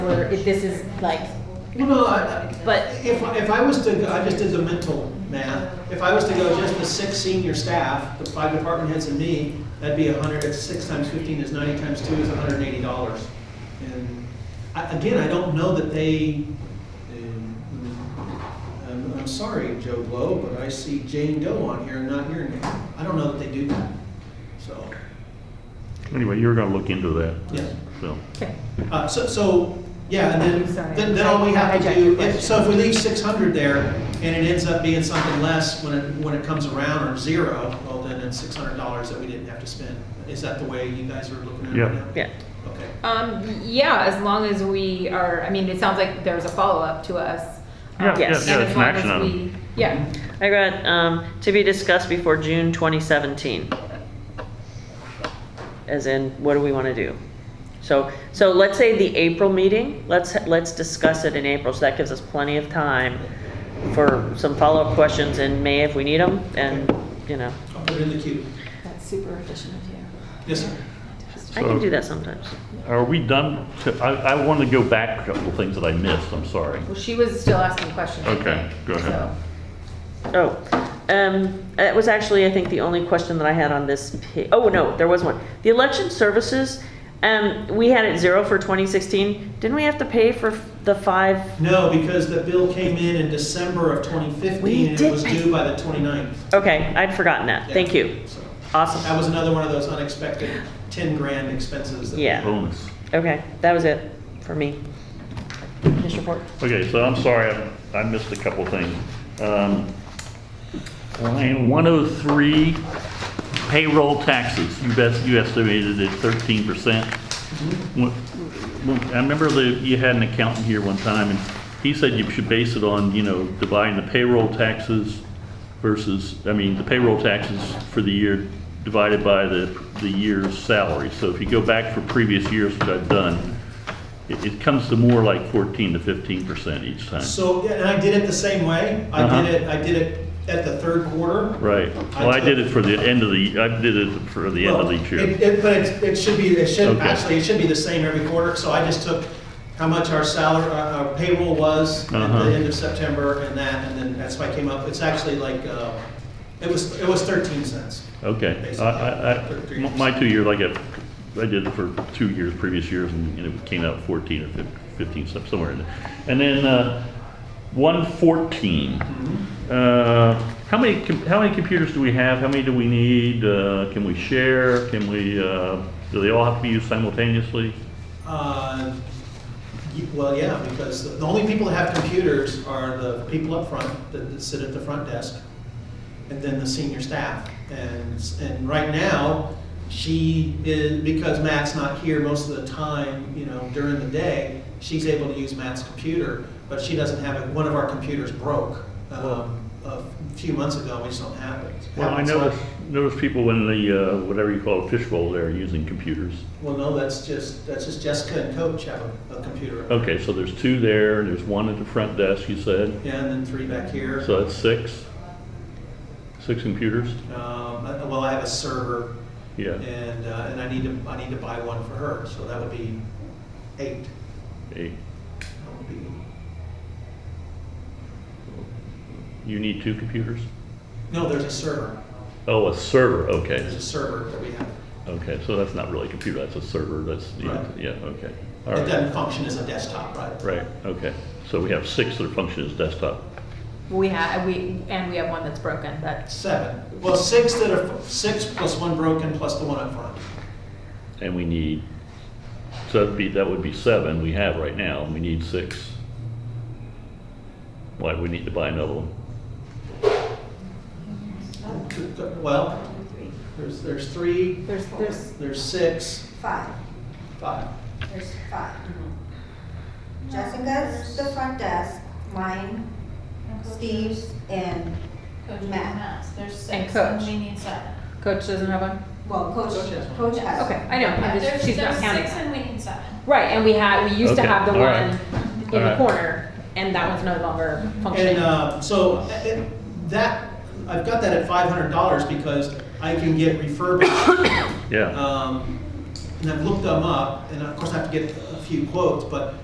or if this is like, Well, no, I, I- But- if, if I was to, go- I just did the mental math, if I was to go just the six senior staff, the five department heads and me, that'd be a hundred, it's six times fifteen is ninety times two is hundred and eighty dollars. And I, again, I don't know that they, um, I'm, I'm sorry, Joe Blow, but I see Jane Doe on here and not your name. I don't know that they do that, so, Anyway, you're gonna look into that, yeah. so. okay, Uh, so, so, yeah, and I'm sorry. then, then, then all we have to Hijack your do, if, so if we leave six hundred there, and it ends up being something less when it, when it comes around, or zero, well, then it's six hundred dollars that we didn't have to spend. Is that the way you guys are looking at it right Yeah. now? yeah. Okay, Um, yeah, as long as we are, I mean, it sounds like there's a follow-up to us. Um, Yeah, yeah, and yeah, as it's an long action as item. we- Yeah, I got, um, to be discussed before June 2017. As in, what do we want to do? So, so let's say the April meeting, let's, let's discuss it in April, so that gives us plenty of time for some follow-up questions in May if we need them, and, you know, I'll put it in the queue. that's super efficient of you. Yes, sir. I can do that sometimes. Are we done? to- I, I want to go back a couple of things that I missed, I'm sorry. Well, she was still asking questions, I Okay, think, go ahead. so. Oh, um, that was actually, I think, the only question that I had on this. pa- Oh, no, there was one. The election services, um, we had it zero for 2016. Didn't we have to pay for f- the five? No, because the bill came in in December of twenty We fifteen, and it did was pay- due by the 29th. Okay, I'd forgotten that. Thank you. So, That Awesome. was another one of those unexpected ten grand expenses that we Yeah. Bonus. Okay, that was it for me. Mr. Ford? Okay, so I'm sorry, I- I missed a couple of things. Um, Line 103, payroll taxes, you best, you estimated it 13%. When- when- I remember that you had an accountant here one time, and he said you should base it on, you know, dividing the payroll taxes versus, I mean, the payroll taxes for the year divided by the, the year's salary. So if you go back for previous years that I've done, it, it comes to more like 14 to 15% each time. So, yeah, and I did it the same way. I Uh-huh. did it, I did it at the third quarter. Right. Well, I did it for the end of the, I did it for the end of Well, each year. it- it- But it, it should be, it should, Okay. actually, it should be the same every quarter, so I just took how much our salary, uh, our payroll was at Uh-huh. the end of September and that, and then that's why I came up, it's actually like, uh, it was, it was thirteen cents. Okay. I- I, I, my two years, like I, I did it for two years, previous years, and and it came out 14 or 15 15, some- somewhere in there. And then, uh, 114. Uh, how many, com- how many computers do we have? How many do we need? Uh, can we share? Can we, uh, do they all have to be used simultaneously? Uh, y- Well, yeah, because the- the only people that have computers are the people up front that that sit at the front desk, and then the senior staff. And, s- and right now, she is, because Matt's not here most of the time, you know, during the day, she's able to use Matt's computer, but she doesn't have it, one of our computers broke um, a few months ago, we just don't have it. Well, I Happens a lot. noticed, noticed people in the, uh, whatever you call it, fishbowl there using computers. Well, no, that's just, that's just Jessica and Coach have a, a computer. Okay, so there's two there, and there's one at the front desk, you said, Yeah, and then three back here. so that's six? Six computers? Um, I- well, I have a server, Yeah, and, uh, and I need to, I need to buy one for her, so that would be eight. eight. That would be, You need two computers? no, there's a server, Oh, a server, there's okay, a server that we have. okay, so that's not really a computer, that's a server, that's, yeah, Right. yeah, okay. All It right, doesn't function as a desktop, right? right, okay, so we have six that function as desktop. We have, we, and we have one that's broken, that's, Seven, well, six that are, six plus one broken plus the one up front. And we need, so that'd be, that would be seven we have right now, and we need six. Why, we need to buy another one. Well, there's, there's three, there's, there's, there's six, Five, five. there's five. Mm-hmm. Jessica's the front desk, mine, Steve's, and, Coach Matt. and Matt's, there's And six, and coach. we need seven. Coach doesn't have one? well, Coach, Coach has one. Coach has. Okay, I know, Yeah, I'm there's- just, she's not there's counting six that. and we need seven. Right, and we had, we used to Okay, have the all right. one All in the right. corner, and that one's no longer And functioning. uh, so uh, it- that, I've got that at five hundred dollars because I can get refurbished Yeah. Um, And I've looked them up, and of course I have to get a few quotes, but